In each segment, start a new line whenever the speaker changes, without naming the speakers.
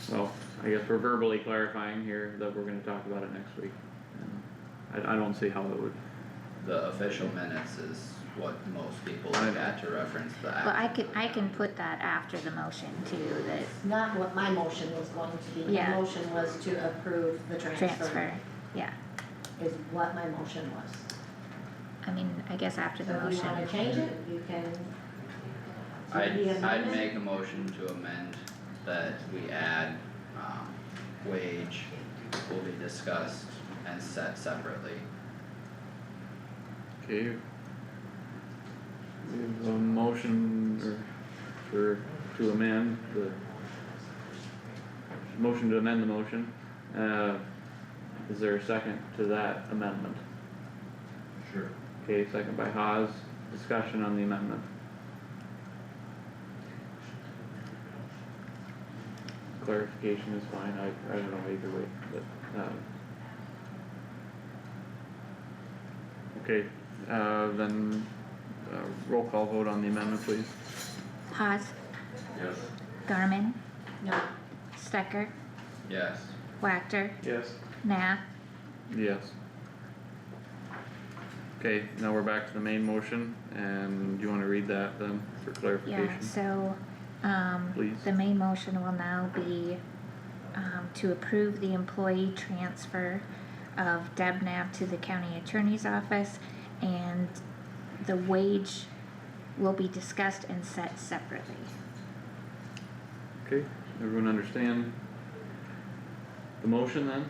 So, I guess we're verbally clarifying here that we're gonna talk about it next week. I, I don't see how it would,
The official minutes is what most people look at to reference the action.
Well, I can, I can put that after the motion too, that
Not what my motion was going to be, my
Yeah.
motion was to approve the transfer,
transfer, yeah.
is what my motion was.
I mean, I guess after the
So if you
motion,
wanna change it, you can. Maybe
I'd, I'd
amend it.
make a motion to amend that we add, um, wage will be discussed and set separately.
okay. We have a motion or for, to amend the. Motion to amend the motion, uh, is there a second to that amendment?
Sure.
Okay, second by Haas, discussion on the amendment. Clarification is fine, I, I don't know either way, but, um. Okay, uh, then, uh, roll call vote on the amendment, please.
Haas,
Yes.
Garmin,
No,
Stecker,
Yes,
Wactor,
Yes.
Nah,
Yes. Okay, now we're back to the main motion, and do you wanna read that then for
yeah,
clarification?
so, um,
Please.
the main motion will now be um, to approve the employee transfer of Deb Nab to the county attorney's office and the wage will be discussed and set separately.
Okay, everyone understand the motion then?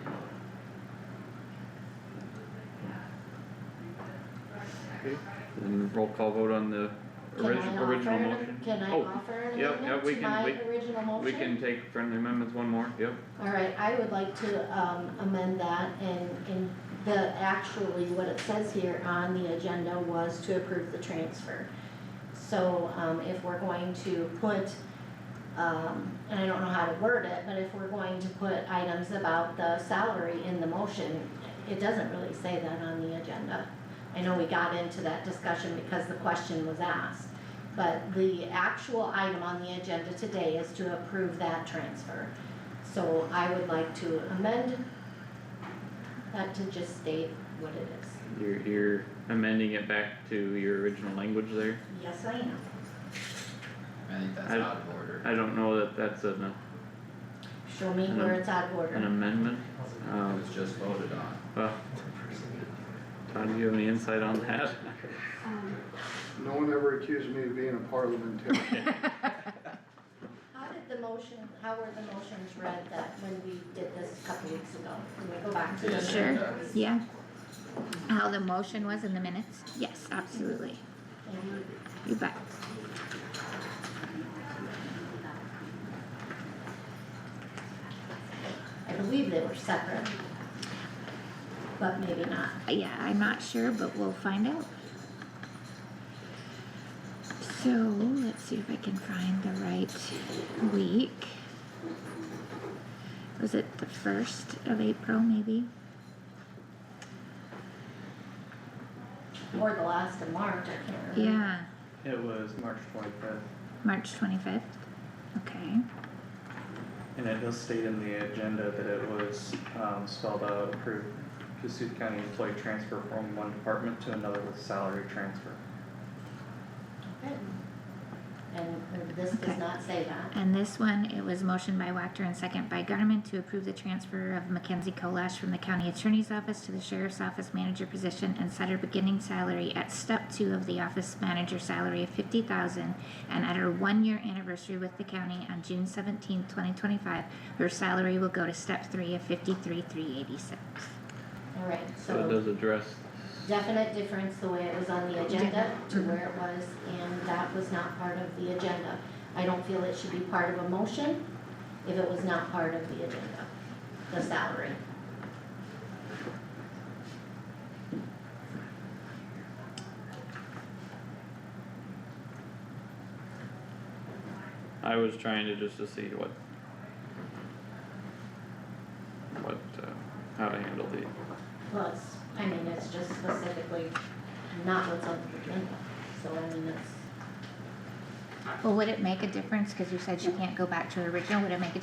Okay, then roll call vote on the
can I
original, original
offer,
motion.
an- can I
Oh,
offer an
yep, yep,
amendment
we
to
can-
my
we-
original motion?
We can take friendly amendments, one more, yep,
Alright, I would like to, um, amend that and, and the, actually what it says here on the agenda was to approve the transfer. So, um, if we're going to put, um, and I don't know how to word it, but if we're going to put items about the salary in the motion, it doesn't really say that on the agenda. I know we got into that discussion because the question was asked, but the actual item on the agenda today is to approve that transfer. So I would like to amend that to just state what it is.
you're, you're amending it back to your original language there.
Yes, I am.
I think that's
I-
out of order.
I don't know that that's an,
Show me where it's out of
an
order.
amendment,
It
um,
was just voted on.
well, Todd, do you have any insight on that?
No one ever accused me of being a parliamentarian.
How did the motion, how were the motions read that when we did this a couple weeks ago? Can we go back to
The
the?
Sure.
agenda.
Yeah. How the motion was in the minutes? Yes, absolutely. You bet.
I believe they were separate. But maybe not.
Uh, Yeah, I'm not sure, but we'll find out. So let's see if I can find the right week. Was it the first of April, maybe?
Or the last of March, I can't remember.
Yeah,
It was March twenty-fifth,
March 25th. Okay.
and it does state in the agenda that it was, um, spelled out, approved Cassuth County employee transfer from one department to another with salary transfer.
Okay. And this does
Okay.
not say that.
And this one, it was motion by Wactor and second by Garmin to approve the transfer of Mackenzie Colash from the county attorney's office to the sheriff's office manager position and set her beginning salary at step two of the office manager salary of fifty thousand. And at her one-year anniversary with the county on June seventeenth, twenty twenty-five, her salary will go to step three of fifty-three, three eighty-six.
Alright, so.
So it does address,
definite difference the way it was on the agenda
Yeah.
to where it was, and that was not part of the agenda. I don't feel it should be part of a motion if it was not part of the agenda, the salary.
I was trying to just to see what. What, uh, how to handle the,
Plus, I mean, it's just specifically not what's on the agenda, so I mean, it's.
Well, would it make a difference, cause you said she can't go back to her original, would it make a difference